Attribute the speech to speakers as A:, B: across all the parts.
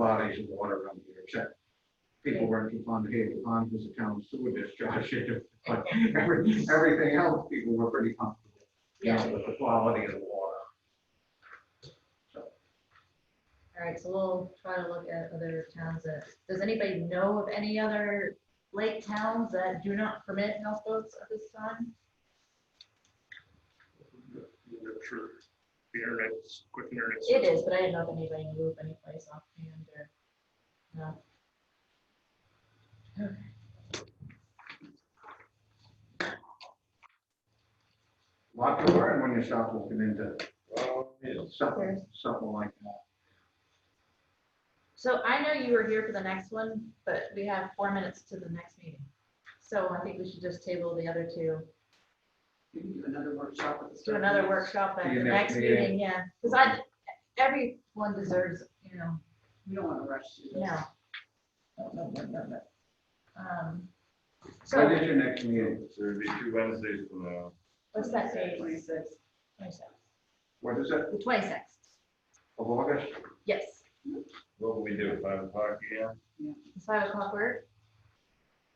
A: bodies of water around here, except people went to Pond Cave, the pond was a town sewer discharge. But every- everything else, people were pretty comfortable, you know, with the quality of the water.
B: All right, so we'll try to look at other towns that, does anybody know of any other lake towns that do not permit houseboats at this time?
C: I'm sure the internet's, quick internet's.
B: It is, but I didn't know if anybody knew of any place offhand or, no. Okay.
A: Lot to learn when you start looking into something,
B: Yes.
A: something like that.
B: So I know you were here for the next one, but we have four minutes to the next meeting. So I think we should just table the other two,
D: You can do another workshop with the.
B: do another workshop at
A: See you
B: the
A: next
B: next
A: meeting.
B: meeting, yeah. Because I, everyone deserves, you know,
D: We don't want to rush through this.
B: yeah.
D: No, no, no, no, no.
B: um,
A: When
B: So,
A: is your next meeting?
E: So it'd be two Wednesdays from now.
B: what's that date?
D: Twenty-six.
B: Twenty-sixth.
A: What is it,
B: The twenty-sixth,
A: of August?
B: yes.
E: What will we do, five o'clock again?
B: It's five o'clock work.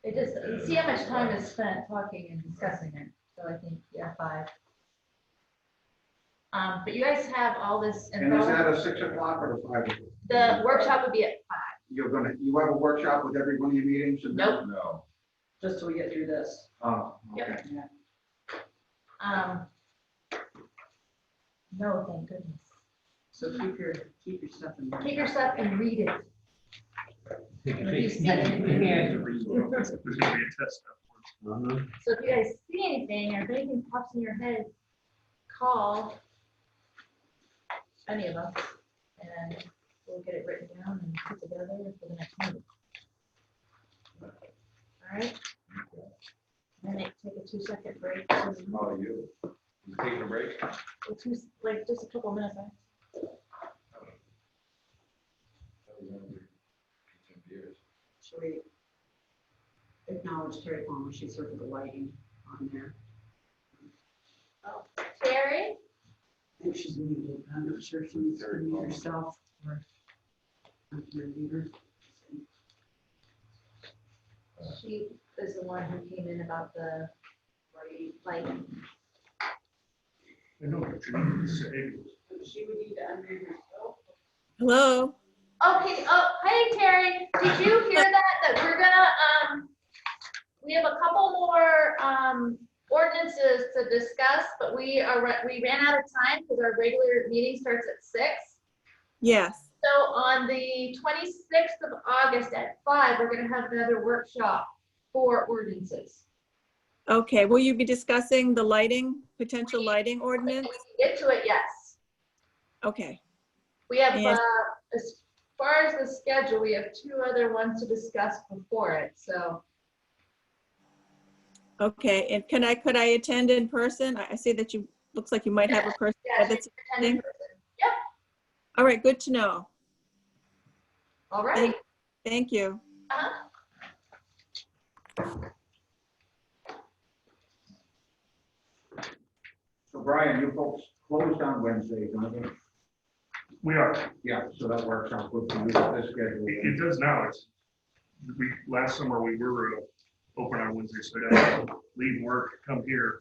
B: It just, see how much time is spent talking and discussing it, so I think, yeah, five. Um, but you guys have all this
A: And is
B: info,
A: that a six o'clock or a five? o'clock?
B: the workshop would be at
A: You're gonna, you have a workshop with every one of your meetings and?
B: Nope.
E: No.
D: Just till we get through this.
A: Oh,
B: Yep.
A: okay.
B: Um. No, thank goodness.
D: So keep your, keep your stuff in. mind.
B: Take your stuff and read it. If you see anything.
C: There's gonna be a test afterwards.
B: So if you guys see anything or if anything pops in your head, call any of us and we'll get it written down and put together for the next meeting. All right? And then take a two second break, to-
E: How are you? You taking a break?
B: or two, like just a couple minutes. I-
E: Ten years.
D: Should we acknowledge Terry Palmer? She's sort of the lighting on there.
B: Terry?
D: I think she's muted. but I'm not sure if she's
E: Terry
D: muted
E: Palmer.
D: herself or. I'm gonna mute her.
B: She is the one who came in about the, like,
C: I know what you need to say.
D: She would need to unmute herself.
F: Hello.
B: okay, oh, hey Terry, did you hear that, that we're gonna, um, we have a couple more, um, ordinances to discuss, but we are, ra- we ran out of time because our regular meeting starts at six.
F: Yes.
B: So on the twenty-sixth of August at five, we're gonna have another workshop for ordinances.
F: Okay. Will you be discussing the lighting, potential lighting
B: If
F: ordinance?
B: we can Get to it, yes.
F: Okay.
B: We have, uh,
F: Yes.
B: as far as the schedule, we have two other ones to discuss before it, so.
F: Okay. And can I, could I attend in person? I I see that you, looks like you might have a person.
B: yeah,
F: that's-
B: you can attend in person. Yep,
F: All right. Good to know.
B: all right.
F: Thank you.
B: Uh-huh.
A: So Brian, you folks closed on Wednesday, don't you?
C: We are,
A: Yeah, so that works out good for you with this
C: it,
A: schedule.
C: it does now, it's, we, last summer, we were uh, open on Wednesday, so I had to leave work, come here,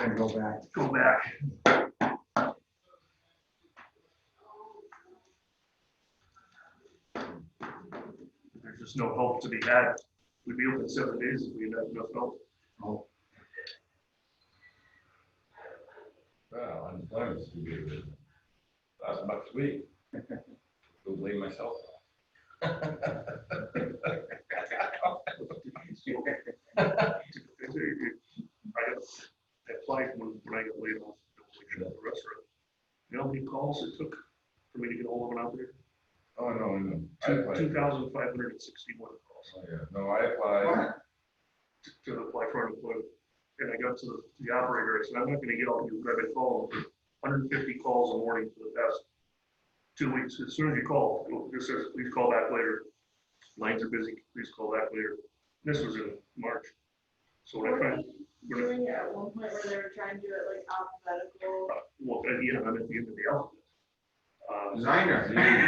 A: And go back.
C: go back. There's just no help to be had, we'd be open seven days if we had enough help.
A: Oh,
E: Well, I'm glad to be here. That's about sweet. Don't blame myself.
C: I applied when, when I got laid off, at the restaurant. You know how many calls it took for me to get hold of an operator?
E: Oh, no, no. I applied.
C: Two thousand five hundred and sixty-one calls
E: Oh, yeah. No, I applied.
A: what?
C: to- to apply for unemployment. And I got to the- the operator, I said, I'm not gonna get all you grabbing calls, hundred and fifty calls a morning for the past two weeks. As soon as you call, it'll- it says, please call back later. Lines are busy, please call back later. This was in March. So when I finally when I-
G: doing it at one point where they were trying to do it like alphabetical
C: well, at the end, I'm at the end of the alphabet. Um,
A: Designer.